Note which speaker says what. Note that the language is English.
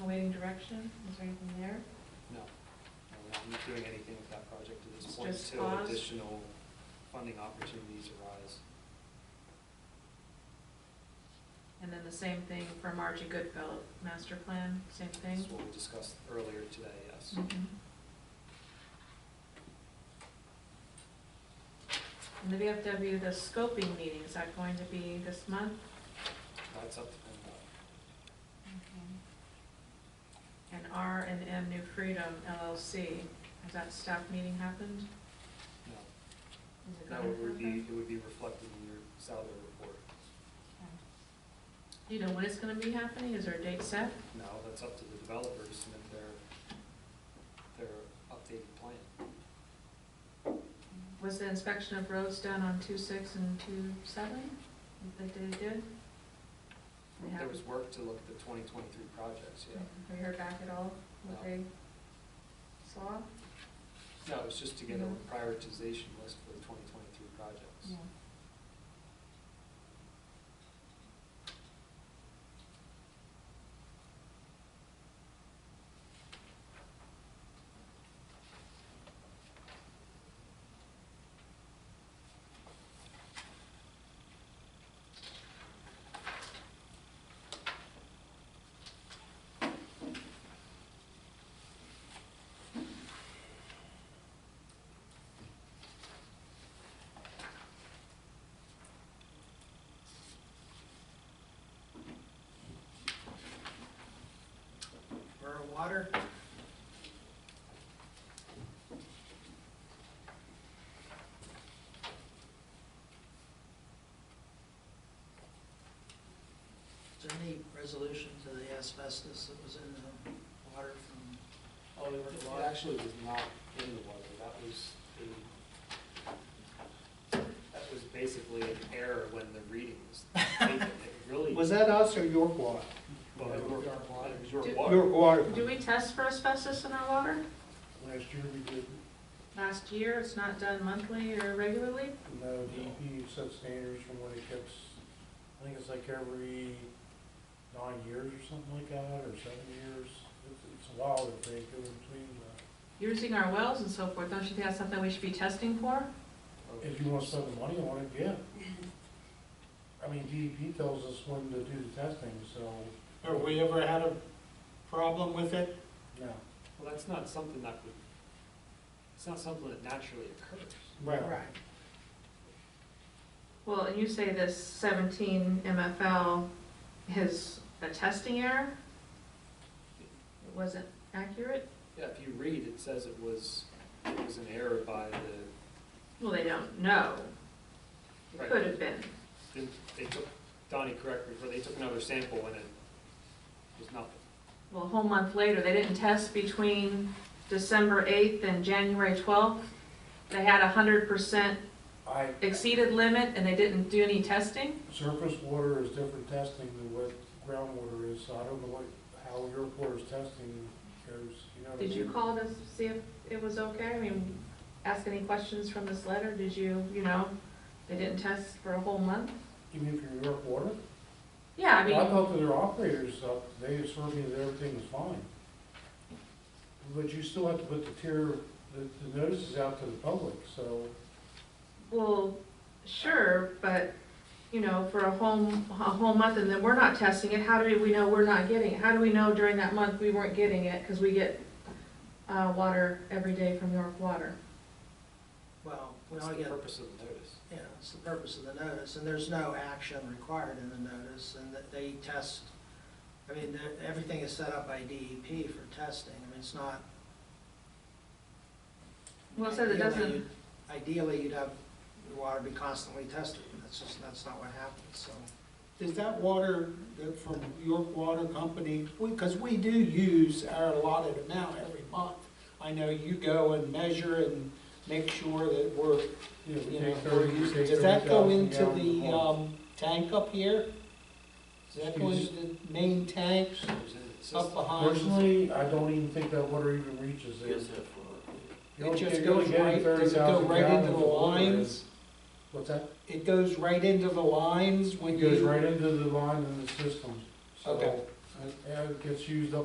Speaker 1: awaiting direction, is there anything there?
Speaker 2: No, No, we're not doing anything with that project at this
Speaker 1: It's
Speaker 2: point
Speaker 1: just
Speaker 2: until
Speaker 1: paused?
Speaker 2: additional funding opportunities arise.
Speaker 1: And then the same thing for Margie Goodfellow, master plan, same thing?
Speaker 2: That's what we discussed earlier today, yes.
Speaker 1: Mhm. And the VFW, the scoping meeting, is that going to be this month?
Speaker 2: That's up to them.
Speaker 1: And R and M New Freedom LLC, has that staff meeting happened?
Speaker 2: No,
Speaker 1: Is it
Speaker 2: no,
Speaker 1: going
Speaker 2: it
Speaker 1: to
Speaker 2: would be,
Speaker 1: happen?
Speaker 2: it would be reflected in your salary report.
Speaker 1: Do you know when it's gonna be happening, is there a date set?
Speaker 2: No, that's up to the developers to submit their, their updated plan.
Speaker 1: Was the inspection of roads done on two six and two seven that they did? They
Speaker 2: There
Speaker 1: have-
Speaker 2: was work to look at the twenty twenty-three projects, yeah.
Speaker 1: Have you heard back at all what
Speaker 2: No.
Speaker 1: they saw?
Speaker 2: No, it's just to get a
Speaker 1: No.
Speaker 2: prioritization list for the twenty twenty-three projects.
Speaker 3: Borough Water. Is there any resolution to the asbestos that was in the water from Oliver
Speaker 2: It
Speaker 3: Water?
Speaker 2: actually was not in the water, that was the, that was basically an error when the reading was taken. It really,
Speaker 4: Was that us or York Water?
Speaker 2: well, it was your water, it was your
Speaker 1: Did-
Speaker 2: water.
Speaker 4: York Water.
Speaker 1: Do we test for asbestos in our water?
Speaker 4: Last year we did,
Speaker 1: Last year, it's not done monthly or regularly?
Speaker 4: no, DEP E set standards from what it gets, I think it's like every nine years or something like that, or seven years. It's- It's a while that they go between, uh,
Speaker 1: Using our wells and so forth, don't you think that's something we should be testing for?
Speaker 4: if you want to spend the money on it, yeah. I mean, DEP tells us when to do the testing, so,
Speaker 5: Have we ever had a problem with it?
Speaker 4: no.
Speaker 2: Well, that's not something that would, it's not something that naturally occurs.
Speaker 4: Right.
Speaker 1: Well, and you say this seventeen MFL is a testing error? It wasn't accurate?
Speaker 2: Yeah, if you read, it says it was, it was an error by the,
Speaker 1: Well, they don't know. It
Speaker 2: Right.
Speaker 1: could have been.
Speaker 2: didn't- they took, Donnie correct me, but they took another sample when it was nothing.
Speaker 1: Well, a whole month later, they didn't test between December eighth and January twelfth. They had a hundred percent
Speaker 4: I,
Speaker 1: exceeded limit and they didn't do any testing?
Speaker 4: surface water is different testing than what groundwater is, so I don't know what, how your water's testing goes, you know what I
Speaker 1: Did you
Speaker 4: mean?
Speaker 1: call to see if it was okay? I mean, ask any questions from this letter? Did you, you know, they didn't test for a whole month?
Speaker 4: Even if you're New York Water?
Speaker 1: Yeah, I
Speaker 4: Well, I
Speaker 1: mean,
Speaker 4: thought that their operators, uh, they assured me that everything was fine. But you still have to put the tier, the, the notices out to the public, so,
Speaker 1: well, sure, but, you know, for a whole, a whole month and then we're not testing it, how do we know we're not getting it? How do we know during that month we weren't getting it? Because we get, uh, water every day from York Water.
Speaker 3: Well, we
Speaker 2: What's
Speaker 3: only
Speaker 2: the
Speaker 3: get,
Speaker 2: purpose of the notice?
Speaker 3: yeah, it's the purpose of the notice, and there's no action required in the notice, and that they test, I mean, they're- everything is set up by DEP for testing, I mean, it's not
Speaker 1: Well, it says it
Speaker 3: Ideally,
Speaker 1: doesn't,
Speaker 3: you'd- Ideally, you'd have your water be constantly tested, that's just, that's not what happens, so.
Speaker 5: Is that water that from York Water Company? Because we do use our allotted amount every month. I know you go and measure and make sure that we're,
Speaker 4: you know, we
Speaker 5: you know,
Speaker 4: take
Speaker 5: we're
Speaker 4: thirty, we
Speaker 5: using.
Speaker 4: take
Speaker 5: Does that go
Speaker 4: 30,000
Speaker 5: into
Speaker 4: gallons of
Speaker 5: the
Speaker 4: water.
Speaker 5: um, tank up here? Does that go into the main tank
Speaker 2: It was in the system.
Speaker 5: up behind?
Speaker 4: Personally, I don't even think that water even reaches there. You
Speaker 5: It
Speaker 4: only-
Speaker 5: just
Speaker 4: you're only
Speaker 5: goes
Speaker 4: getting
Speaker 5: right, does it go
Speaker 4: 30,000
Speaker 5: right into
Speaker 4: gallons
Speaker 5: the
Speaker 4: of water.
Speaker 5: lines?
Speaker 4: What's that?
Speaker 5: It goes right into the lines when
Speaker 4: It
Speaker 5: you.
Speaker 4: goes right into the line in the system, so,
Speaker 5: Okay.
Speaker 4: and it gets used up